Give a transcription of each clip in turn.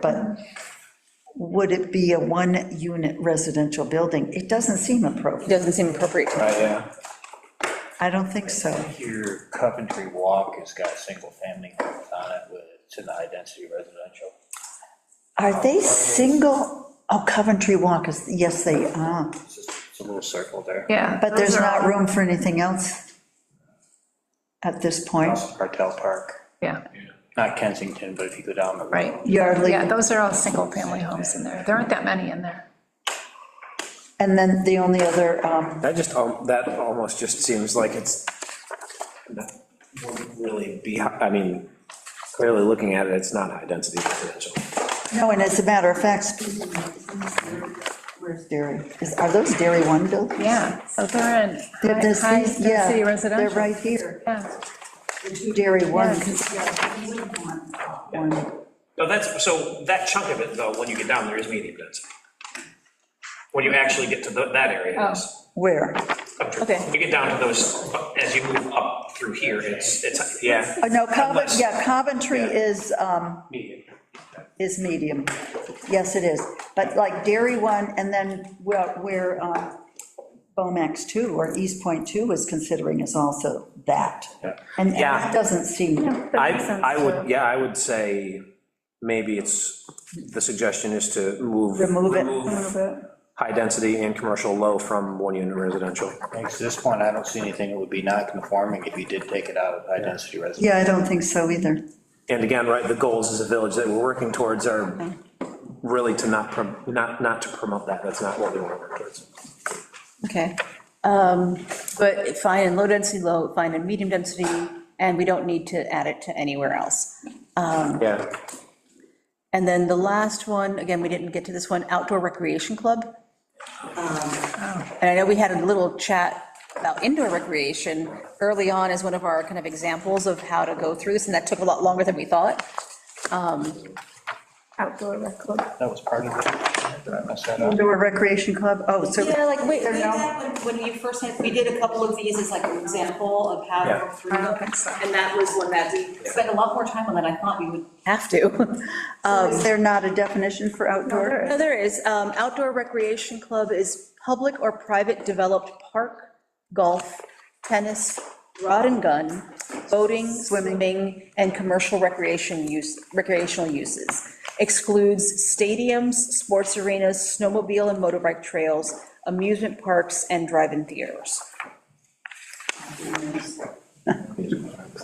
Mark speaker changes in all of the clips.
Speaker 1: but would it be a one-unit residential building? It doesn't seem appropriate.
Speaker 2: Doesn't seem appropriate to me.
Speaker 3: Right, yeah.
Speaker 1: I don't think so.
Speaker 3: Here, Coventry Walk has got single-family homes on it with, it's in the high-density residential.
Speaker 1: Are they single, oh, Coventry Walk is, yes, they are,
Speaker 3: It's just, it's a little circle there.
Speaker 4: Yeah.
Speaker 1: but
Speaker 4: those
Speaker 1: there's
Speaker 4: are
Speaker 1: not
Speaker 4: all-
Speaker 1: room for anything else at this point.
Speaker 3: Across Martell Park,
Speaker 4: Yeah,
Speaker 3: not Kensington, but if you go down the road.
Speaker 4: right.
Speaker 1: Yardley,
Speaker 4: Yeah, those are all single-family homes in there. There aren't that many in there.
Speaker 1: and then the only other, um,
Speaker 5: That just, al- that almost just seems like it's, that wouldn't really be, I mean, clearly looking at it, it's not high-density residential.
Speaker 1: no, and as a matter of fact, speaking of- where's Dairy? Is- Are those Dairy One buildings?
Speaker 4: Yeah, so they're in
Speaker 1: They're-
Speaker 4: high-
Speaker 1: there's these- yeah,
Speaker 4: high-density residential.
Speaker 1: They're right here,
Speaker 4: Yeah.
Speaker 1: the two Dairy One. One.
Speaker 6: No, that's, so that chunk of it, though, when you get down there is medium density. When you actually get to tho- that area, it's.
Speaker 1: Where?
Speaker 2: Okay.
Speaker 6: When you get down to those, as you move up through here, it's, it's, yeah.
Speaker 1: Oh, no, Coventry,
Speaker 6: Unless-
Speaker 1: yeah, Coventry is, um, is medium. Yes, it is. But like Dairy One, and then where, where um, Bomax Two or East Point Two is considering is also that. And and
Speaker 5: Yeah.
Speaker 1: that doesn't seem,
Speaker 5: I,
Speaker 4: makes sense,
Speaker 5: I
Speaker 4: too.
Speaker 5: would, yeah, I would say, maybe it's, the suggestion is to move.
Speaker 1: Remove it.
Speaker 5: High-density and commercial low from one-unit residential.
Speaker 3: Thanks, to this point, I don't see anything that would be non-conforming if you did take it out of high-density residential.
Speaker 1: yeah, I don't think so either.
Speaker 5: And again, right, the goals as a village that we're working towards are really to not, prom- not, not to promote that, that's not what we want to work towards.
Speaker 2: Okay. Um, But fine in low density, low, fine in medium density, and we don't need to add it to anywhere else.
Speaker 5: Yeah,
Speaker 2: And then the last one, again, we didn't get to this one, outdoor recreation club. Um, And I know we had a little chat about indoor recreation early on as one of our kind of examples of how to go through this, and that took a lot longer than we thought.
Speaker 4: Outdoor rec club.
Speaker 3: That was part of it. Did I mess that up?
Speaker 1: Indoor Recreation Club, oh, so.
Speaker 2: Yeah, like, wait,
Speaker 1: They're
Speaker 2: we did
Speaker 1: not-
Speaker 2: that when, when you first had, we did a couple of these as like an example of how to
Speaker 5: Yeah.
Speaker 2: go through them. And that was one that we spent a lot more time on than I thought we would have to.
Speaker 1: so Is there um, not a definition for outdoor?
Speaker 2: No, there is, um, outdoor recreation club is public or private developed park, golf, tennis, rod and gun, boating, swimming, and commercial recreation use, recreational uses. Excludes stadiums, sports arenas, snowmobile and motorbike trails, amusement parks, and drive-in theaters.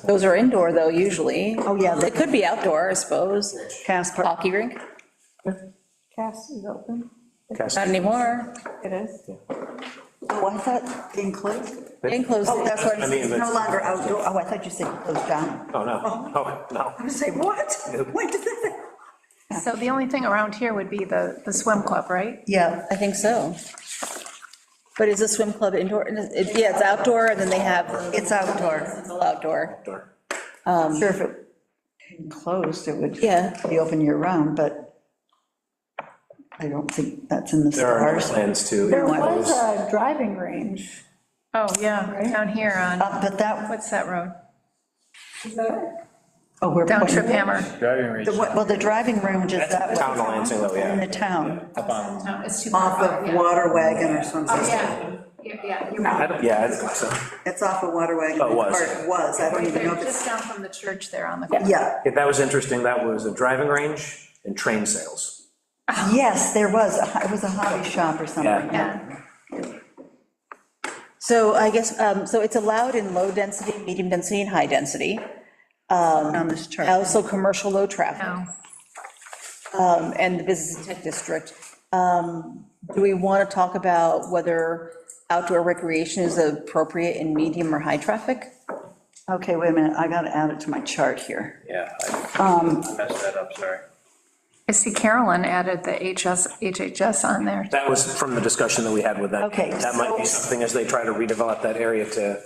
Speaker 2: Those are indoor, though, usually.
Speaker 1: Oh, yeah, they-
Speaker 2: It could be outdoor, I suppose.
Speaker 1: Casper.
Speaker 2: Hockey rink,
Speaker 7: Cast is open,
Speaker 5: Cass-
Speaker 2: not anymore.
Speaker 7: it is.
Speaker 1: Oh, I thought enclosed.
Speaker 2: Enclosed.
Speaker 1: Oh, that's what,
Speaker 5: I mean,
Speaker 1: it's no
Speaker 5: that's-
Speaker 1: longer outdoor, oh, I thought you said closed down.
Speaker 5: oh, no, oh, no.
Speaker 1: I'm gonna say, what? When did that?
Speaker 4: So the only thing around here would be the, the swim club, right?
Speaker 1: Yeah,
Speaker 2: I think so. But is the swim club indoor? It- Yeah, it's outdoor, and then they have.
Speaker 1: It's outdoor.
Speaker 2: It's all outdoor.
Speaker 5: Outdoor.
Speaker 1: I'm sure if it closed, it would
Speaker 2: Yeah.
Speaker 1: be open year-round, but I don't think that's in the
Speaker 5: There are
Speaker 1: stars.
Speaker 5: plans to.
Speaker 7: There
Speaker 5: enclose-
Speaker 7: was a driving range.
Speaker 4: Oh, yeah, down here on,
Speaker 1: Uh, But that,
Speaker 4: what's that road?
Speaker 7: Is that-
Speaker 1: oh, we're.
Speaker 4: Down
Speaker 1: pointing-
Speaker 4: Trip Hammer.
Speaker 3: Driving range.
Speaker 1: The- Well, the driving range is that
Speaker 5: Town of
Speaker 1: way,
Speaker 5: Lansing, though,
Speaker 1: in
Speaker 5: yeah.
Speaker 1: the town,
Speaker 5: Up on-
Speaker 4: No, it's too
Speaker 1: off
Speaker 4: far.
Speaker 1: of Water Wagon or something.
Speaker 4: Oh, Yeah, yeah, yeah, you're
Speaker 5: I
Speaker 4: right.
Speaker 5: don't- Yeah, I don't think so.
Speaker 1: It's off of Water Wagon.
Speaker 5: Oh, it was.
Speaker 1: Or it was, I don't
Speaker 4: Right
Speaker 1: even
Speaker 4: there,
Speaker 1: know if it's,
Speaker 4: Just down from the church there on the.
Speaker 1: yeah,
Speaker 5: Yeah, that was interesting, that was a driving range and train sales.
Speaker 1: yes, there was, a- it was a hobby shop or something.
Speaker 4: Yeah,
Speaker 2: So I guess, um, so it's allowed in low density, medium density, and high density.
Speaker 1: On this chart.
Speaker 2: Also, commercial low traffic,
Speaker 4: no.
Speaker 2: um, and the business and tech district. Um, Do we want to talk about whether outdoor recreation is appropriate in medium or high traffic?
Speaker 1: Okay, wait a minute, I gotta add it to my chart here.
Speaker 3: Yeah,
Speaker 1: um,
Speaker 3: I I messed that up, sorry.
Speaker 4: I see Carolyn added the HS, HHS on there.
Speaker 5: That was from the discussion that we had with them.
Speaker 1: Okay,
Speaker 5: That might be
Speaker 1: so-
Speaker 5: something as they try to redevelop that area to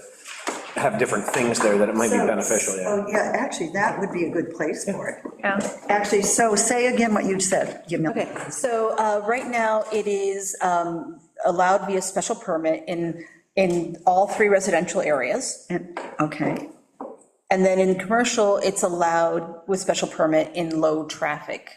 Speaker 5: have different things there, that it might be
Speaker 1: So-
Speaker 5: beneficial, yeah.
Speaker 1: Oh, yeah, actually, that would be a good place for it.
Speaker 4: Yeah.
Speaker 1: Actually, so say again what you said, give me.
Speaker 2: Okay, so uh, right now, it is um, allowed via special permit in, in all three residential areas.
Speaker 1: And- Okay,
Speaker 2: And then in commercial, it's allowed with special permit in low-traffic